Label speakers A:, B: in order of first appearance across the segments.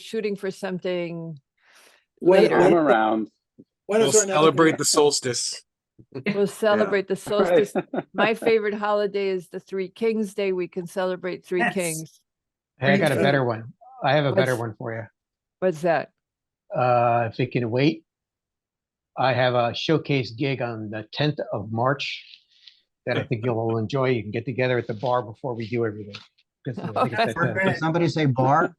A: shooting for something
B: When,
A: later.
B: when,
C: I'm around.
B: when
D: We'll
B: is there another?
D: celebrate the solstice.
A: We'll celebrate the solstice. My
C: favorite.
A: favorite holiday is the Three Kings Day. We can celebrate Three
E: Yes.
A: Kings.
F: Hey, I got a
B: Thanks.
F: better one. I have a better
A: What's-
F: one for
A: What's that?
F: you. Uh, if you can wait. I have a showcase gig on the tenth of March that I think you'll all enjoy. You can get together at the bar before we do everything. 'Cause I think it's
E: We're
F: at, uh,
E: gonna-
G: Did somebody say bar?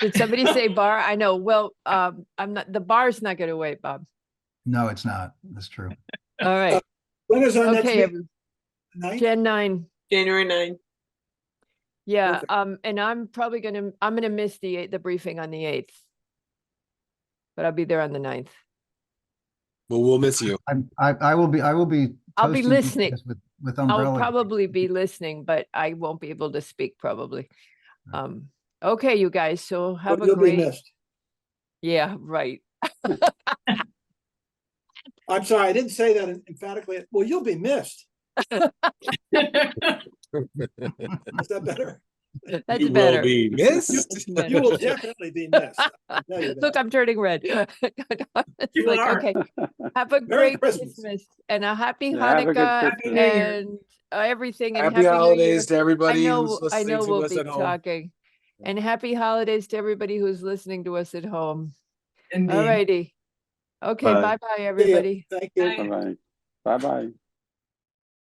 A: Did somebody say bar? I know. Well, um, I'm not, the bar's not gonna wait, Bob.
G: No, it's not. That's true.
A: All right.
B: When is our next
A: Okay,
B: meeting?
A: every-
B: Tonight?
A: Jan nine.
H: January ninth.
A: Yeah,
B: Perfect.
A: um, and I'm probably gonna, I'm gonna miss the eight, the briefing on the eighth. But I'll be there on the ninth.
D: Well, we'll miss you.
G: I'm, I, I will be, I will be.
A: I'll be
G: toasting you
A: listening.
G: guys With, with
A: I'll
G: umbrella.
A: probably be listening, but I won't be able to speak probably. Um, okay, you guys, so have a
B: You'll be
A: great,
B: missed.
A: yeah, right.
B: I'm sorry, I didn't say that emphatically. Well, you'll be missed. Is that better?
A: That's
D: You will
A: better.
D: be missed.
B: You will definitely be missed. I'll tell you
A: Look,
B: that.
A: I'm turning red. It's
E: You
A: like,
E: are.
A: okay, have a
B: Merry
A: great
B: Christmas.
A: Christmas and a happy
C: Yeah, have a good
A: Hanukkah
C: Christmas.
H: Happy New Year.
A: and uh, everything. and
D: Happy
A: New Year.
D: holidays to
A: I
D: everybody
A: know,
D: who's
A: I
D: listening
A: know
D: to
A: we'll
D: us
A: be
D: at home.
A: talking. And happy holidays to everybody who's listening to us at home.
E: Indeed.
A: All righty. Okay,
C: Bye.
A: bye-bye, everybody.
B: Thank you.
H: Bye.
C: Bye-bye. Bye-bye.